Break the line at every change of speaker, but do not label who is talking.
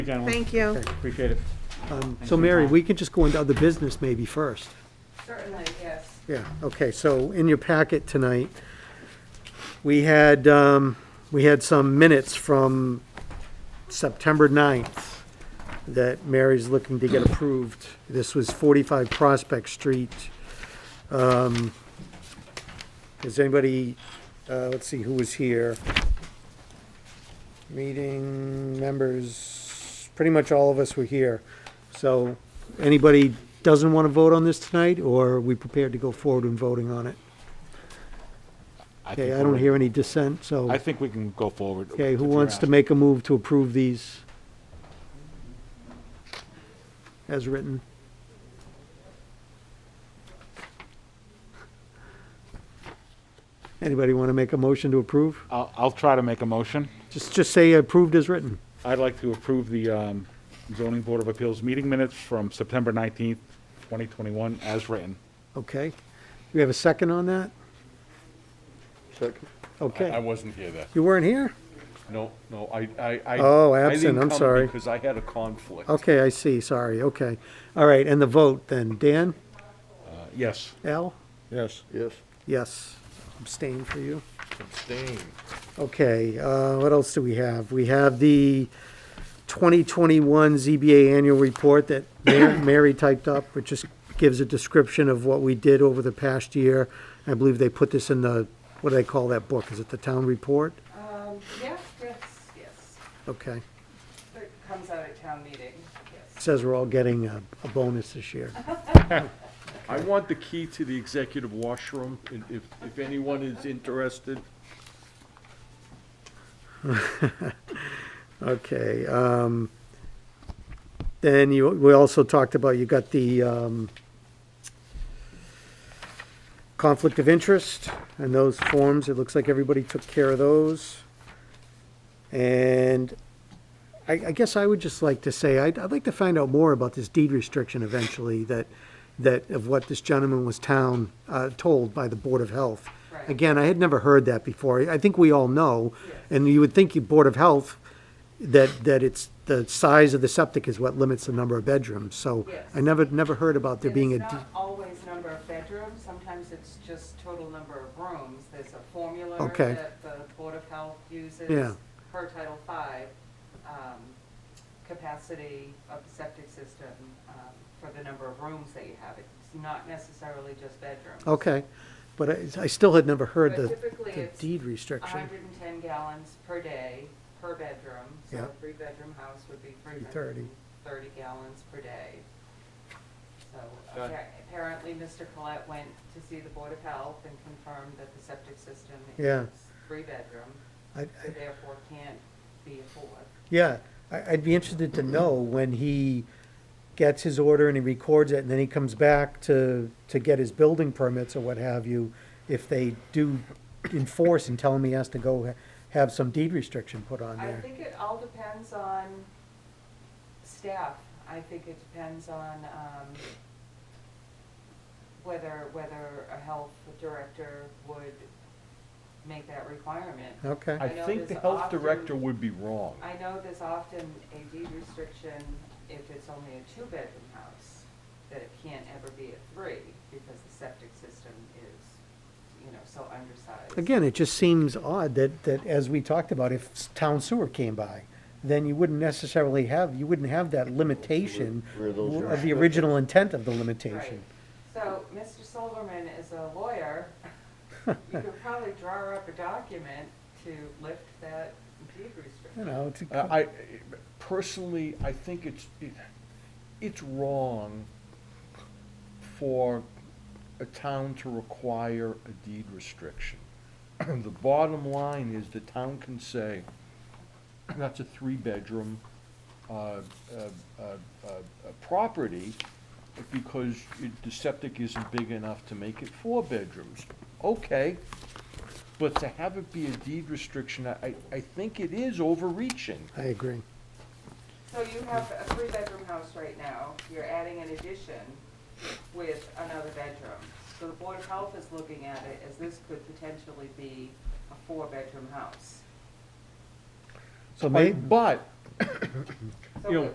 gentlemen.
Thank you.
Okay.
Appreciate it.
Um,
Thanks for
So
your
Mary,
time.
we could just go into other business maybe first.
Certainly, yes.
Yeah, okay, so in your packet tonight, we had, um, we had some minutes from September 9th that Mary's looking to get approved. This was 45 Prospect Street. Um, Is anybody, uh, let's see, who was here? Meeting members, pretty much all of us were here. So anybody doesn't want to vote on this tonight, or are we prepared to go forward in voting on it?
think
Okay, I
we're
don't
ready.
hear any dissent, so,
I think we can go forward.
okay, who
if you're
wants to
asking.
make a move to approve these? As written? Anybody want to make a motion to approve?
I'll, I'll try to make a motion.
Just, just say approved as written.
I'd like to approve the um, zoning board of appeals meeting minutes from September 19th, 2021, as written.
Okay. Do we have a second on that?
Second. I
Okay.
wasn't here then.
You weren't here?
No, no, I, I, I.
Oh,
I
absent,
didn't
I'm
come
sorry.
Because I had a conflict.
Okay, I see, sorry, okay. All right, and the vote then, Dan,
Uh, Yes.
Al?
Yes. Yes.
Yes, abstain for you.
Abstain.
Okay, uh, what else do we have? We have the 2021 ZBA annual report that Ma- Mary typed up, which just gives a description of what we did over the past year. I believe they put this in the, what do they call that book? Is it the town report?
Um, yeah, yes, yes.
Okay,
It comes out at town meeting, yes.
says we're all getting a a bonus this year.
I want the key to the executive washroom, and if, if anyone is interested.
Okay, um, then you, we also talked about, you got the, um, conflict of interest and those forms, it looks like everybody took care of those. And I, I guess I would just like to say, I'd, I'd like to find out more about this deed restriction eventually, that, that of what this gentleman was town, uh, told by the Board of Health.
Right.
Again, I had never heard that before. I think we all know, and you would think you Board of Health, that, that it's, the size of the septic is what limits the number of bedrooms, so
Yes.
I never, never heard about there
And
being a.
It's
de-
not always number of bedrooms, sometimes it's just total number of rooms. There's a formula
Okay.
that the Board of Health uses.
Yeah.
Per Title V, um, capacity of the septic system, um, for the number of rooms that you have. It's not necessarily just bedrooms.
Okay, but I, I still had never heard
But
the
typically
the
it's
deed restriction.
hundred and ten gallons per day, per bedroom, so
Yeah.
a three-bedroom house would be three hundred
330.
and thirty gallons per day. So
Got it.
appar- apparently, Mr. Collette went to see the Board of Health and confirmed that the septic system
Yeah.
is three-bedroom,
I- I-
so therefore can't be a fourth.
Yeah, I, I'd be interested to know when he gets his order and he records it, and then he comes back to, to get his building permits or what have you, if they do enforce and tell him he has to go ha- have some deed restriction put on
I
there.
think it all depends on staff. I think it depends on um, whether, whether a health director would make that requirement.
Okay,
I
I know
think the
there's
health
often-
director would be wrong.
I know there's often a deed restriction if it's only a two-bedroom house, that it can't ever be a three because the septic system is, you know, so undersized.
again, it just seems odd that, that as we talked about, if s- town sewer came by, then you wouldn't necessarily have, you wouldn't have that limitation of the original intent of the
Right.
limitation.
So, Mr. Silverman is a lawyer. You could probably draw up a document to lift that deed
You
restriction.
know, it's, a-
Uh, I, I- personally, I think it's, it- it's wrong for a town to require a deed restriction. The bottom line is the town can say, that's a three-bedroom, uh, uh, uh, uh, uh, property because it- the septic isn't big enough to make it four bedrooms. Okay, but to have it be a deed restriction, I, I- I think it is overreaching.
I agree.
So you have a three-bedroom house right now, you're adding an addition with another bedroom. So the Board of Health is looking at it as this could potentially be a four-bedroom house.
So
But-
may,
But
So
You know,
what-